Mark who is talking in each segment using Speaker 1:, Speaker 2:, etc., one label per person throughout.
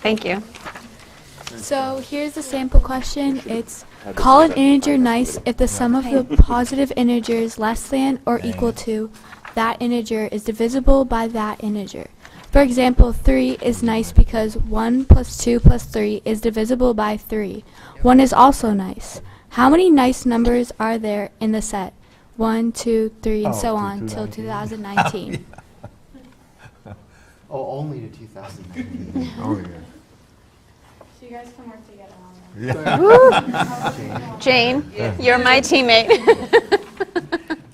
Speaker 1: Thank you.
Speaker 2: So here's the sample question. It's call an integer nice if the sum of the positive integers less than or equal to that integer is divisible by that integer. For example, 3 is nice because 1 plus 2 plus 3 is divisible by 3. 1 is also nice. How many nice numbers are there in the set? 1, 2, 3, and
Speaker 3: Oh,
Speaker 2: so
Speaker 3: to
Speaker 2: on till 2019.
Speaker 4: Oh, only to 2019.
Speaker 3: Oh, yeah.
Speaker 5: So you guys can work together on that.
Speaker 1: Jane, you're my teammate.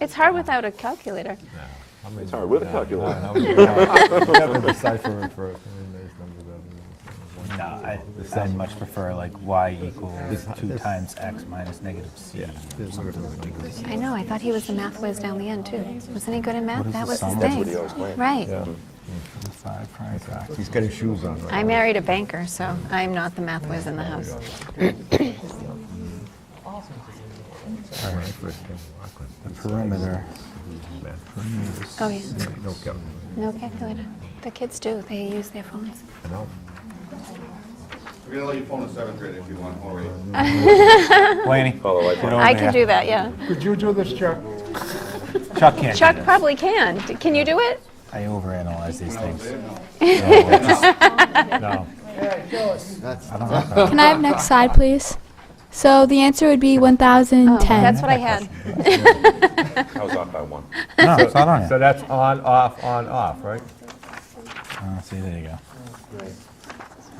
Speaker 1: It's hard without a calculator.
Speaker 3: It's
Speaker 6: hard with a calculator.
Speaker 3: Never decipher it for, I mean, there's numbers out
Speaker 7: No, I, I'd much prefer like y equals two times x minus negative c.
Speaker 3: there. Something ridiculous.
Speaker 1: I know, I thought he was the math whiz down the end, too. Wasn't he good at math?
Speaker 7: is
Speaker 1: That
Speaker 7: the
Speaker 1: was his
Speaker 7: sum? That's
Speaker 1: thing.
Speaker 7: what he
Speaker 6: always claimed.
Speaker 1: Right.
Speaker 7: Five prime factor.
Speaker 3: He's getting shoes on right
Speaker 1: I
Speaker 3: now.
Speaker 1: married a banker, so I'm not the math whiz in the house.
Speaker 3: All right, first thing, Rockland.
Speaker 7: The perimeter. Perimeter is-
Speaker 1: Oh, yeah.
Speaker 3: No calculator.
Speaker 1: No calculator. The kids do, they use their phones.
Speaker 3: No.
Speaker 8: We're gonna let you phone a seventh grade if you want already.
Speaker 7: Laney,
Speaker 6: Follow
Speaker 3: Oh,
Speaker 6: like
Speaker 7: get over
Speaker 1: I can
Speaker 7: there.
Speaker 1: do that, yeah.
Speaker 3: Could you do this, Chuck?
Speaker 7: Chuck can't do
Speaker 1: Chuck
Speaker 7: this.
Speaker 1: probably can. D- Can you do it?
Speaker 7: I overanalyze these things. No,
Speaker 4: That's,
Speaker 7: I don't like that.
Speaker 2: Can I have next slide, please? So the answer would be 1010.
Speaker 1: Oh, That's what I had.
Speaker 6: I was off by one.
Speaker 7: No, it's not on
Speaker 3: So
Speaker 7: it.
Speaker 3: that's on, off, on, off, right?
Speaker 7: Oh, see, there you go.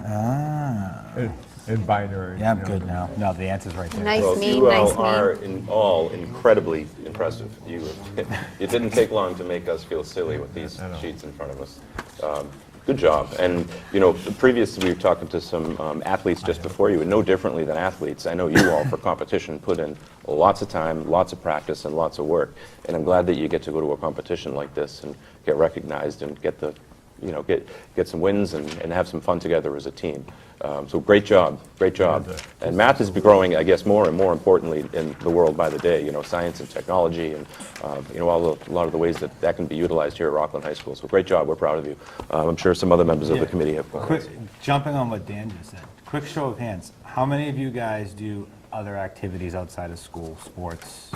Speaker 7: Ah,
Speaker 3: In- In binary.
Speaker 7: yeah, I'm
Speaker 3: you know.
Speaker 7: good now. No, the answer's right there.
Speaker 1: Nice
Speaker 6: Well,
Speaker 1: me,
Speaker 6: you all
Speaker 1: nice
Speaker 6: are
Speaker 1: me.
Speaker 6: in all incredibly impressive. You, it didn't take long to make us feel silly with these sheets in front of us. Um, good job. And you know, previously we were talking to some um, athletes just before you, and no differently than athletes. I know you all for competition put in lots of time, lots of practice, and lots of work. And I'm glad that you get to go to a competition like this and get recognized and get the you know, get, get some wins and, and have some fun together as a team. Um, so great job, great job. And math is growing, I guess, more and more importantly in the world by the day. You know, science and technology, and um, you know, all the, a lot of the ways that that can be utilized here at Rockland High School. So great job. We're proud of you. Um, I'm sure some other members of the
Speaker 7: Yeah.
Speaker 6: committee have.
Speaker 7: Quick, jumping on what Dan just said, quick show of hands, how many of you guys do other activities outside of school, sports?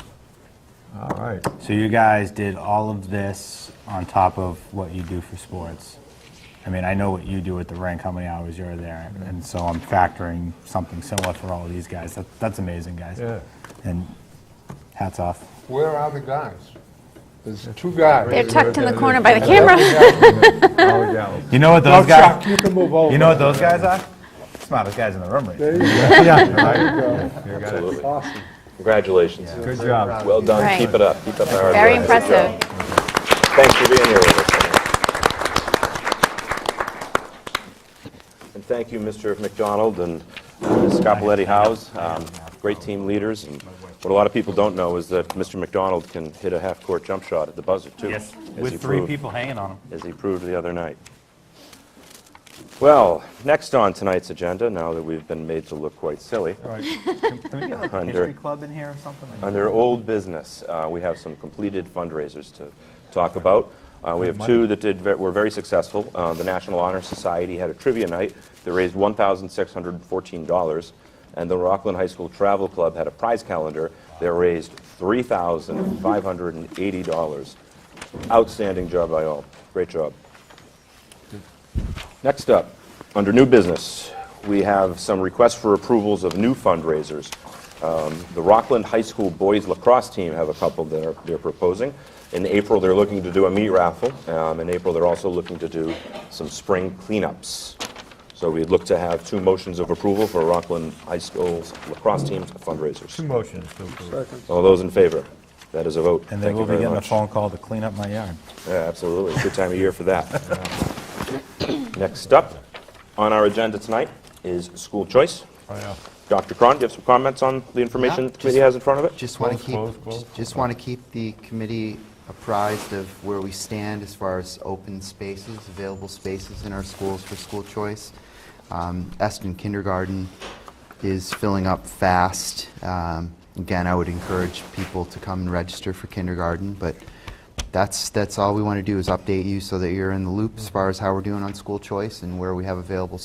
Speaker 3: All right.
Speaker 7: So you guys did all of this on top of what you do for sports? I mean, I know what you do at the rink, how many hours you're there, and so I'm factoring something similar for all of these guys. That, that's amazing, guys.
Speaker 3: Yeah.
Speaker 7: And hats off.
Speaker 9: Where are the guys? There's two guys.
Speaker 1: They're tucked in the corner by the camera.
Speaker 3: All the gals.
Speaker 7: You know what those
Speaker 9: Chuck,
Speaker 7: guys?
Speaker 9: you can move over.
Speaker 7: You know what those guys are? Smartest guys in the room, right?
Speaker 9: There you go.
Speaker 3: You got it.
Speaker 6: Absolutely. Congratulations.
Speaker 3: Good job.
Speaker 6: Well done.
Speaker 1: Right.
Speaker 6: Keep it up. Keep up the hard
Speaker 1: Very
Speaker 6: work. Good job.
Speaker 1: impressive.
Speaker 6: Thanks for being here with us. tonight. And thank you, Mr. McDonald and Ms. Scapoletti Howes, um, great team leaders. And What a lot of people don't know is that Mr. McDonald can hit a half-court jump shot at the buzzer, too.
Speaker 7: Yes,
Speaker 6: as he
Speaker 7: with three
Speaker 6: proved-
Speaker 7: people hanging on them.
Speaker 6: As he proved the other night. Well, next on tonight's agenda, now that we've been made to look quite silly,
Speaker 7: Can we get like a
Speaker 6: Under-
Speaker 7: history club in here or something? Like
Speaker 6: Under old business, uh, we have some completed fundraisers to talk about. Uh, We have two that did, ve- were very successful. Uh, The National Honor Society had a trivia night that raised $1,614, and the Rockland High School Travel Club had a prize calendar that raised $3,580. Outstanding job by all. Great job. Next up, under new business, we have some requests for approvals of new fundraisers. Um, The Rockland High School boys lacrosse team have a couple that are- they're proposing. In April, they're looking to do a meat raffle. Um, In April, they're also looking to do some spring cleanups. So we'd look to have two motions of approval for Rockland High School's lacrosse team's
Speaker 3: Two
Speaker 6: fundraisers.
Speaker 3: motions to approve.
Speaker 6: All those in favor? That is a vote.
Speaker 7: And they
Speaker 6: Thank you
Speaker 7: will be
Speaker 6: very
Speaker 7: getting a
Speaker 6: much.
Speaker 7: phone call to clean up my yard.
Speaker 6: Yeah, absolutely. Good time of year for that. Next up on our agenda tonight is school choice.
Speaker 3: Oh, yeah.
Speaker 6: Dr. Cron, do you have some comments on the information
Speaker 4: Yeah,
Speaker 6: the committee has in front of it?
Speaker 4: just want to
Speaker 3: Close, close, close.
Speaker 4: keep, just want to keep the committee apprised of where we stand as far as open spaces, available spaces in our schools for school choice. Um, Eston Kindergarten is filling up fast. Um, Again, I would encourage people to come and register for kindergarten, but that's,
Speaker 3: Mm-hmm.
Speaker 4: that's all we want to do is update you so that you're in the loop as far as how we're doing on school choice and where we have available